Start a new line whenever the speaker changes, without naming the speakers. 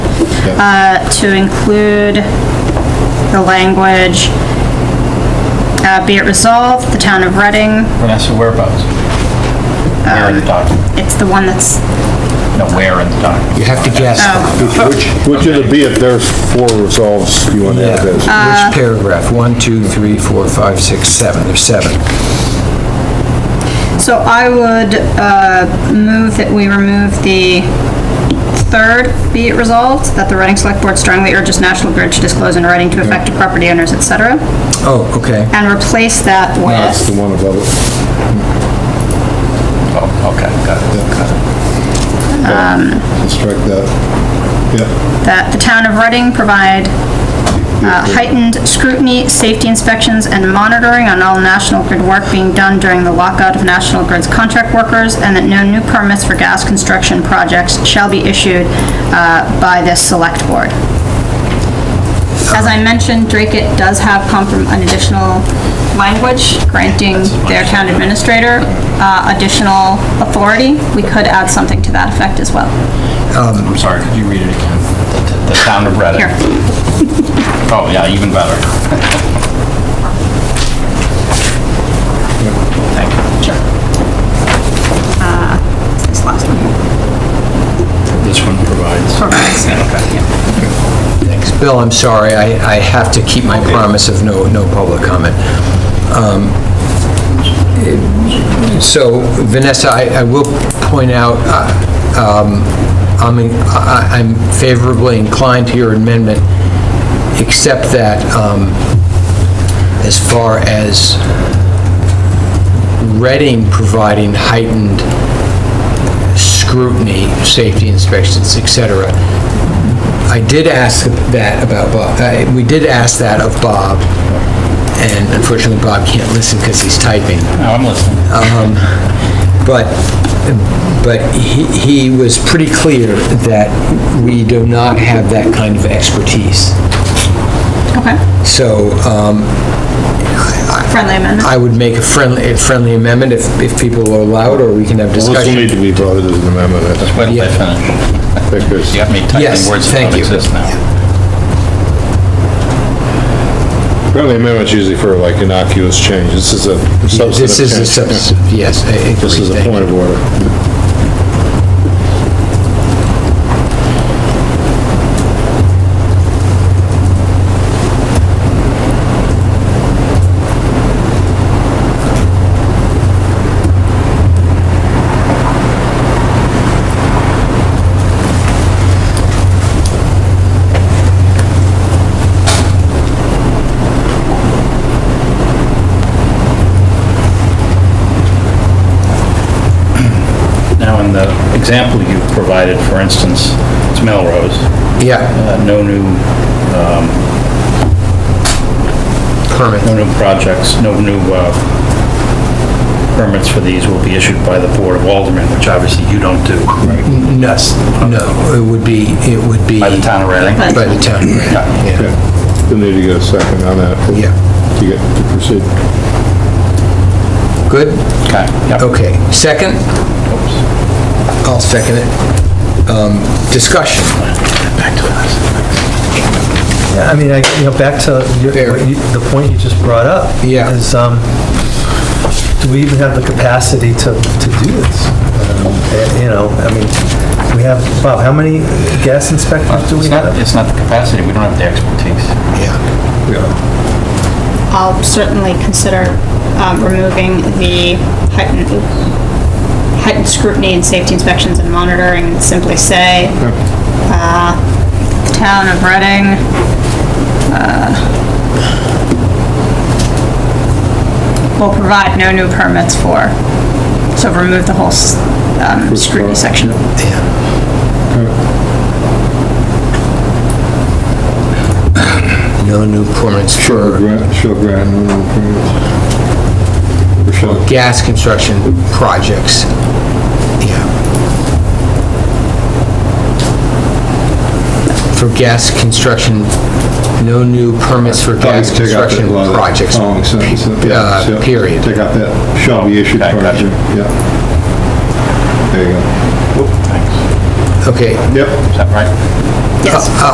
uh, to include the language, uh, be it resolved, the town of Reading,
Vanessa, whereabouts?
Uh,
Where in the document?
it's the one that's,
No, where in the document?
You have to guess
oh,
Which, which it'll be if there's four resolves you want to add as.
which paragraph, one, two, three, four, five, six, seven, there's seven.
so I would, uh, move that we remove the third, be it resolved, that the Reading Select Board strongly urges National Grid to disclose in writing to affected property owners, et cetera,
Oh, okay.
and replace that
That's
with,
the one above it.
Oh, okay, got it, got it.
So Strike that. Yeah,
that the town of Reading provide uh, heightened scrutiny, safety inspections, and monitoring on all National Grid work being done during the lockout of National Grid's contract workers, and that no new permits for gas construction projects shall be issued uh, by this select board. As I mentioned, Drake it does have comprom, an additional language granting their town administrator uh, additional authority. We could add something to that effect as well.
Um,
I'm sorry, could you read it again? The- The town of Reading?
Here.
Oh, yeah, even better. Thank you.
This last one.
This one provides.
Provides.
Yeah, Okay, yeah.
Bill, I'm sorry, I, I have to keep my promise of no, no public comment. Um, it- So Vanessa, I, I will point out, uh, um, I'm, in- I- I- I'm favorably inclined to your amendment, except that um, as far as Reading providing heightened scrutiny, safety inspections, et cetera. I did ask that about Bob, uh, we did ask that of Bob, and unfortunately Bob can't listen because he's typing.
No, I'm listening.
Um, But, but he he was pretty clear that we do not have that kind of expertise.
Okay,
So um,
friendly amendment.
I would make a friendly, a friendly amendment if, if people are allowed, or we can have
well, this will
discussion.
need to be voted as an amendment, I
Just wait till I
Yeah.
finish.
think, because
You got me
Yes,
typing words that
thank
don't
you.
exist now.
friendly amendment's usually for like innocuous change. This is a substantive change.
This is a substantive, yes, I agree.
This is a
thank you.
point of order.
Now, in the example you provided, for instance, it's Melrose,
Yeah,
uh, no new,
permit.
no new projects, no new uh, permits for these will be issued by the Board of Aldermen, which obviously you don't do. right?
No, no, it would be, it would be
By the
by
town of Reading?
But-
the town,
Yeah.
yeah.
Yeah. We'll need to get a second on that.
Yeah.
To get, to proceed.
Good?
Okay, yeah.
Okay. Second? I'll second it. Um, Discussion.
Back to us.
Yeah, I mean, I, you know, back to your,
Fair.
what you- the point you just brought up.
Yeah.
Is, um, do we even have the capacity to, to do this? Um, eh, You know, I mean, we have, Bob, how many gas inspectors do we
It's not,
have?
it's not the capacity, we don't have the expertise.
Yeah.
I'll certainly consider um, removing the heightened, heightened scrutiny and safety inspections and monitoring, and simply say, uh, the town of Reading, uh, will provide no new permits for, so remove the whole s- um, scrutiny section.
No new permits
Shall
for
grant, shall grant no new permits. Or shall-
gas construction projects. Yeah. For gas construction, no new permits for
Probably
gas
take out that Oh,
construction
lot of
projects.
Following sentence, yeah,
uh,
yeah.
period.
Take out that, shall be issued
Okay,
permit,
gotcha.
yeah. There you go.
Thanks.
Okay.
Yep.
Is that right?
Yes.
Uh,